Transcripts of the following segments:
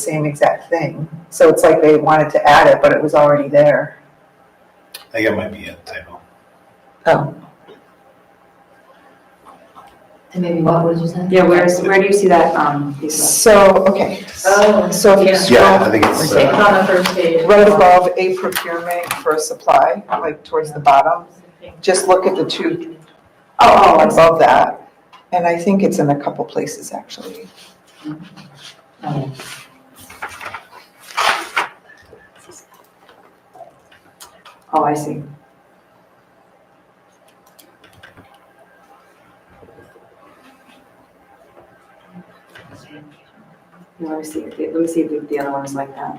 same exact thing. So it's like they wanted to add it, but it was already there. I think that might be a typo. Oh. And maybe what would you say? Yeah, where's, where do you see that, um, piece So, okay, Oh, Um, so if you yeah. Yeah, scroll I think it's, It's uh, on the first page. right above a procurement for supply, like towards the bottom, just look at the two Oh, oh, above that. And I think it's in a couple places, actually. oh, I see. Let me see, if the- let me see if the- the other one's like that.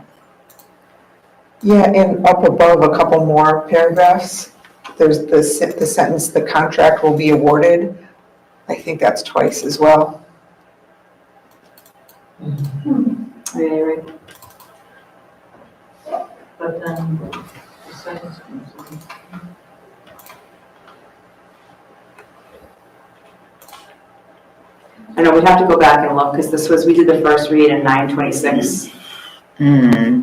Yeah, and up above, a couple more paragraphs, there's the sen- the sentence, "The contract will be awarded." I think that's twice as well. Oh, Yeah, you're right. But then, the sentence comes I know, we have to go back and look, because this was, we did the first read in nine twenty-six. Hmm.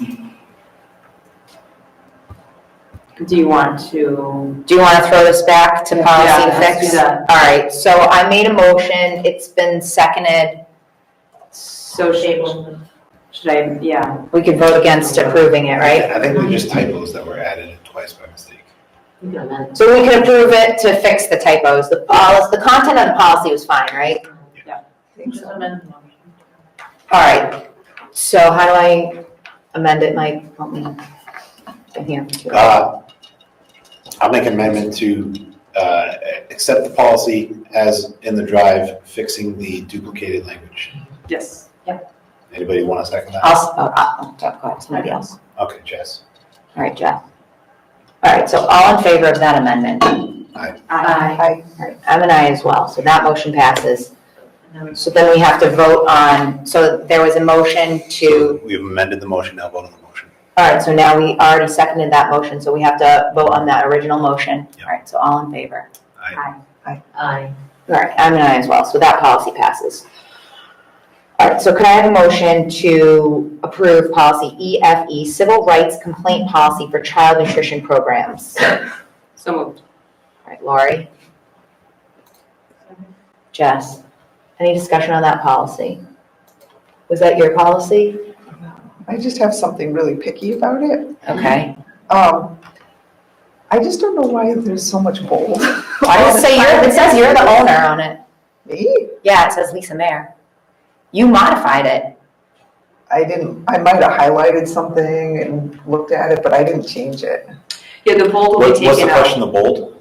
Do you want to, Do you want to throw this back to Yeah, policy and let's do fix? that. All right, so I made a motion, it's been seconded. so in. should, Table. should I, yeah, We can vote against approving it, right? I think they're just typos that were added in twice by mistake. You can amend. So we can approve it to fix the typos. The policy, the content of the policy was fine, right? I think Just so. amend the motion. All right, so how do I amend it, Mike? Help me. I'm here. Uh, I'll make an amendment to uh, accept the policy as in the drive, fixing the duplicated language. yes. Anybody want to second that? I'll, s- oh, I'll, I'll go ahead, somebody else. Okay, Jess. All right, Jeff. All right, so all in favor of that amendment? Uh-huh. Aye. I, All right, I'm an aye as well, so that motion passes. And then we- So then we have to vote on, so there was a motion to, We've amended the motion, now vote on the motion. all right, so now we already seconded that motion, so we have to vote on that original motion. Yeah. All right, so all in favor? Aye. All right, I'm an aye as well, so that policy passes. All right, so could I have a motion to approve policy EFE, civil rights complaint policy for child nutrition programs? All So moved. right, Lori? Jess? Any discussion on that policy? Was that your policy? I just have something really picky about it. Okay. Um, I just don't know why there's so much bold. I would say you're, it says you're the owner on it. Me? Yeah, it says Lisa Mayer. You modified it. I didn't, I might have highlighted something and looked at it, but I didn't change it. Yeah, the bold will be What- What's the taken out. question, the bold?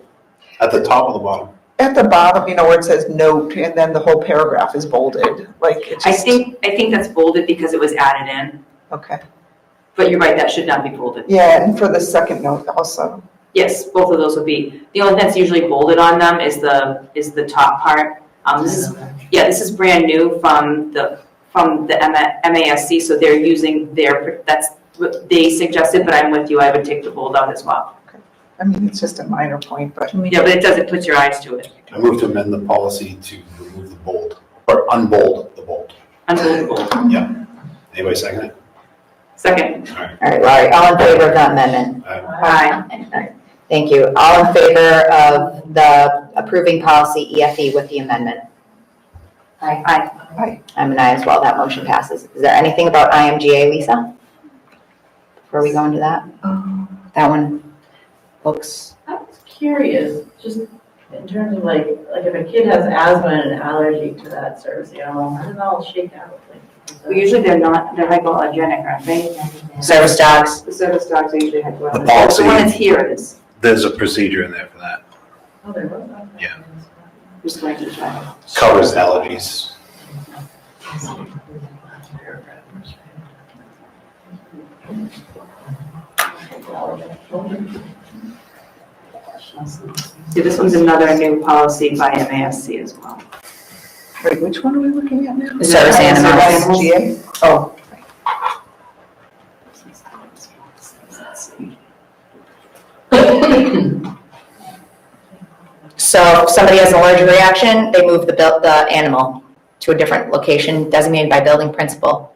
At the top or the bottom? At the bottom, you know, where it says note, and then the whole paragraph is bolded, like it I just, think, I think that's bolded because it was added in, okay. but you're right, that should not be bolded. Yeah, and for the second note also, Yes, both of those would be, the only thing that's usually bolded on them is the, is the top part. Um, this is, yeah, this is brand new from the, from the M- MASC, so they're using their, that's what they suggested, but I'm with you, I would take the bold out as well. I mean, it's just a minor point, but Yeah, but it doesn't put your eyes to it, I move to amend the policy to remove the bold, or unbold the bold. unbelievable. Anybody second it? Second, All right, Laurie, all in favor of that amendment? Aye. aye, Thank you. All in favor of the approving policy EFE with the amendment? aye. I'm an aye as well, that motion passes. Is there anything about IMGA, Lisa? Before we go into that? That one looks, I was curious, just in terms of like, like if a kid has asthma and an allergy to that service animal, how does that all shake out? Well, usually they're not, they're hypoallergenic, aren't they? service dogs, The service dogs are usually hypoallergenic. The policy. The one that's here it is, There's a procedure in there for that. Oh, there was one. Yeah. just going to the child. Covers allergies. Yeah, this one's another new policy by MASC as well. wait, which one are we looking at now? Is it service animals. ISGA? Oh, So if somebody has an allergic reaction, they move the, buil- the animal to a different location designated by building principal.